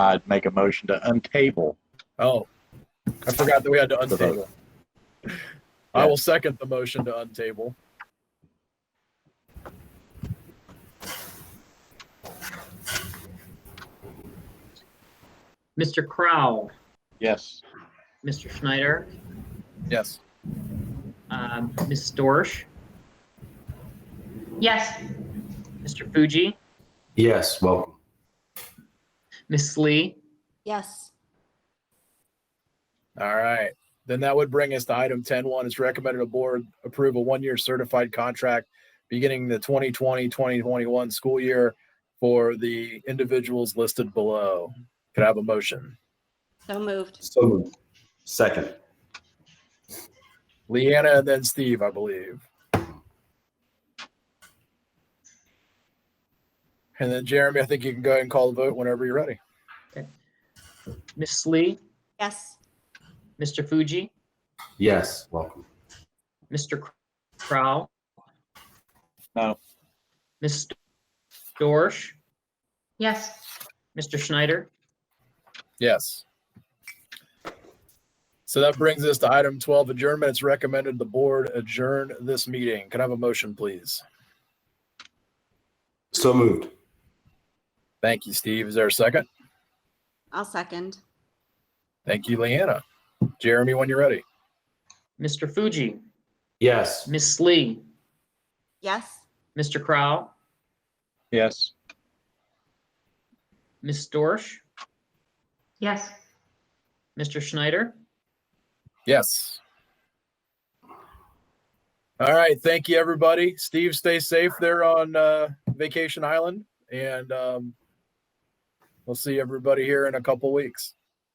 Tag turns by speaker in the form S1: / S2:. S1: I'd make a motion to untable.
S2: Oh, I forgot that we had to
S1: The vote.
S2: untable. I will second the motion to untable.
S3: Mr. Crowell,
S1: Yes.
S3: Mr. Schneider,
S2: Yes.
S3: um, Ms. Dorsch,
S4: Yes.
S3: Mr. Fuji,
S5: Yes, welcome.
S3: Ms. Lee,
S4: Yes.
S2: All right. Then that would bring us to item 10 1. It's recommended a board approve a one year certified contract beginning the 2020 2021 school year for the individuals listed below. Could I have a motion?
S4: So moved.
S5: So moved. Second.
S2: Leanna and then Steve, I believe. And then Jeremy, I think you can go ahead and call the vote whenever you're ready.
S3: Ms. Lee,
S4: Yes.
S3: Mr. Fuji,
S5: Yes, welcome.
S3: Mr. Crowell.
S1: No.
S3: Ms. Dorsch,
S4: Yes.
S3: Mr. Schneider,
S2: Yes. So that brings us to item 12, adjournment. It's recommended the board adjourn this meeting. Can I have a motion, please?
S5: So moved.
S2: Thank you, Steve. Is there a second?
S4: I'll second.
S2: Thank you, Leanna. Jeremy, when you're ready.
S3: Mr. Fuji,
S5: Yes.
S3: Ms. Lee,
S4: Yes.
S3: Mr. Crowell,
S1: Yes.
S3: Ms. Dorsch,
S4: Yes.
S3: Mr. Schneider.
S2: Yes. All right. Thank you, everybody. Steve, stay safe there on uh, Vacation Island. And um, we'll see everybody here in a couple weeks.